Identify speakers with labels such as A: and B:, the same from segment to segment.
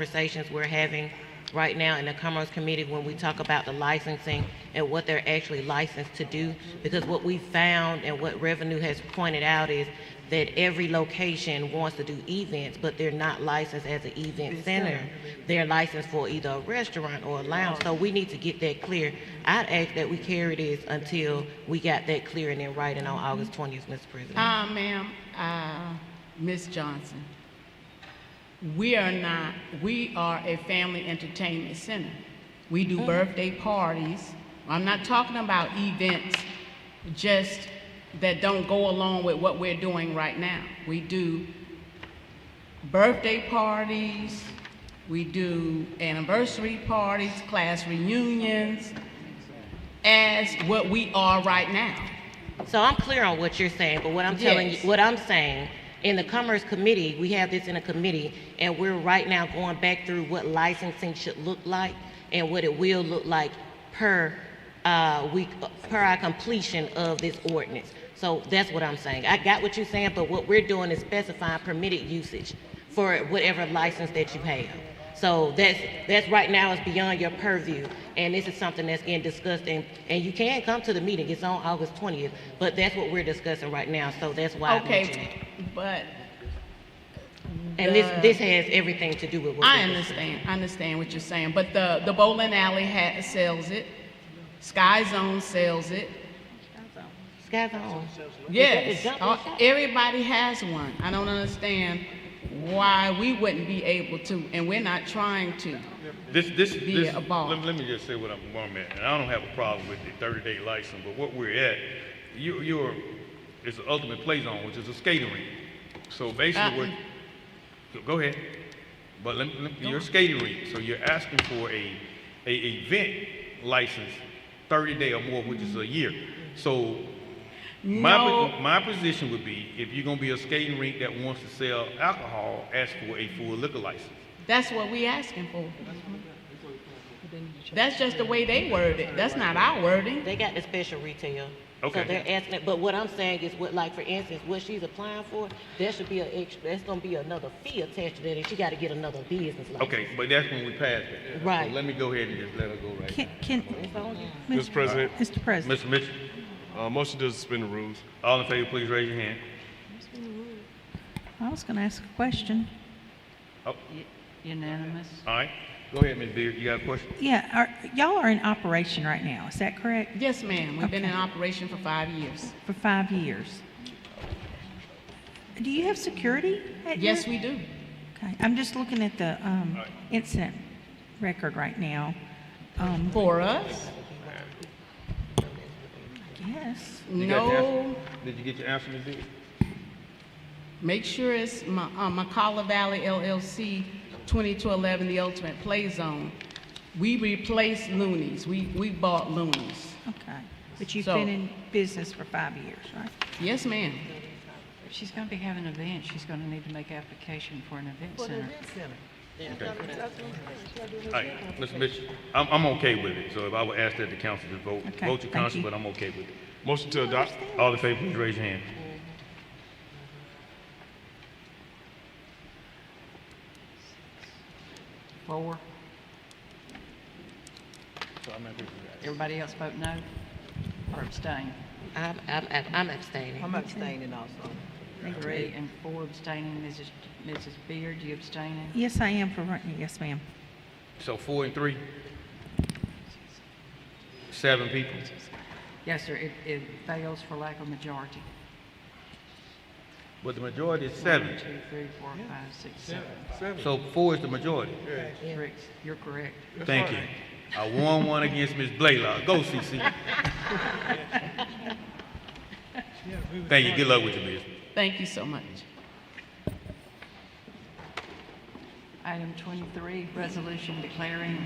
A: conversations we're having right now in the Commerce Committee when we talk about the licensing and what they're actually licensed to do. Because what we found and what revenue has pointed out is that every location wants to do events, but they're not licensed as an event center. They're licensed for either a restaurant or a lounge. So we need to get that clear. I'd ask that we carry this until we got that clear and then writing on August twentieth, Mr. President.
B: Uh, ma'am, uh, Ms. Johnson, we are not, we are a family entertainment center. We do birthday parties. I'm not talking about events just that don't go along with what we're doing right now. We do birthday parties, we do anniversary parties, class reunions, as what we are right now.
A: So I'm clear on what you're saying, but what I'm telling you,
B: Yes.
A: what I'm saying, in the Commerce Committee, we have this in a committee, and we're right now going back through what licensing should look like and what it will look like per, uh, week, per our completion of this ordinance. So that's what I'm saying. I got what you're saying, but what we're doing is specifying permitted usage for whatever license that you have. So that's, that's right now is beyond your purview, and this is something that's getting discussed, and, and you can come to the meeting, it's on August twentieth, but that's what we're discussing right now, so that's why I mentioned it.
B: Okay, but
A: And this, this has everything to do with what
B: I
A: we're discussing.
B: understand, I understand what you're saying, but the, the bowling alley ha sells it, Sky Zone sells it,
A: Sky's on.
B: yes.
A: jumping
B: all-
A: shot?
B: Everybody has one, I don't understand why we wouldn't be able to, and we're not trying to.
C: This, this,
B: Be
C: this,
B: a ball.
C: let, let me just say what I'm, what I'm at, and I don't have a problem with the thirty-day license, but what we're at, you, you're, it's the ultimate play zone, which is a skating rink. So basically
B: Uh-uh.
C: what, go- go ahead, but let, let, you're a skating rink, so you're asking for a, a event license, thirty-day or more, which is a year. So my,
B: No.
C: po- my position would be, if you're gonna be a skating rink that wants to sell alcohol, ask for a full liquor license.
B: That's what we asking for. That's just the way they word it, that's not our wording.
A: They got the special retail. So
C: Okay.
A: they're asking it, but what I'm saying is what, like, for instance, what she's applying for, there should be an extra, that's gonna be another fee attached to that, and she gotta get another business license.
C: Okay, but that's when we passed it. So
A: Right.
C: Let me go ahead and just let her go right
D: Can, can,
A: It's on you.
E: Mr. President,
D: Mr.
C: now.
D: President,
C: Mr. Mitchell,
E: uh, motion to suspend the rules.
C: all in favor, please raise your hand.
D: I was going to ask a question.
F: Unanimous?
C: All right, go ahead, Ms. Beard, you got a question?
D: Yeah, are, y'all are in operation right now, is that correct?
B: Yes, ma'am, we've been in
D: Okay.
B: operation for five years.
D: For five years? Do you have security at your?
B: Yes, we do.
D: Okay, I'm just looking at the, um,
C: All right.
D: incident record right now. Um,
B: For us,
D: yes,
C: You got your answer?
B: no.
C: Did you get your answer, Ms. Beard?
B: Make sure it's Ma- uh, McCalla Valley LLC, 20 to 11, the ultimate play zone. We replaced Looney's. We, we bought Looney's.
D: okay. But you've
B: So-
D: been in business for five years, right?
B: Yes, ma'am.
F: If she's going to be having an event, she's going to need to make application for an event center.
C: All right, Mr. Mitchell, I'm, I'm okay with it, so if I would ask that the council to vote,
D: Okay,
C: vote your
D: thank
C: council,
D: you.
C: but I'm okay with it.
E: Motion to adopt.
C: All in favor, please raise your hand.
F: Four. Everybody else vote no or abstain?
A: I'm, I'm, I'm abstaining.
G: I'm abstaining also.
F: Three and four abstaining. Mrs. Mrs. Beard, you abstaining?
D: Yes, I am for right now, yes, ma'am.
C: So four and three? Seven people?
F: Yes, sir, it, it fails for lack of majority.
C: But the majority is seven,
F: One, two, three, four, five, six, seven.
C: so four is the majority.
F: Rick, you're correct.
C: Thank you. I won one against Ms. Blaylock. Go, CC. Thank you. Good luck with your business.
B: Thank you so much.
F: Item 23, resolution declaring,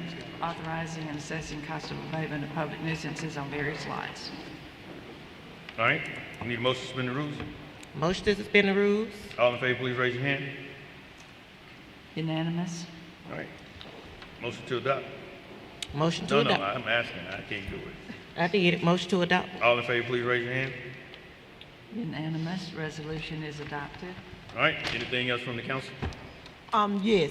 F: authorizing, and assessing cost of abatement of public nuisances on various lots.
C: All right, we need a motion to suspend the rules.
A: Motion to suspend the rules.
C: All in favor, please raise your hand.
F: Unanimous?
C: All right. Motion to adopt.
A: Motion to
C: No, no,
A: adopt.
C: I'm asking. I can't do it.
A: I did. Motion to adopt.
C: All in favor, please raise your hand.
F: Unanimous, resolution is adopted.
C: All right, anything else from the council?
G: Um, yes,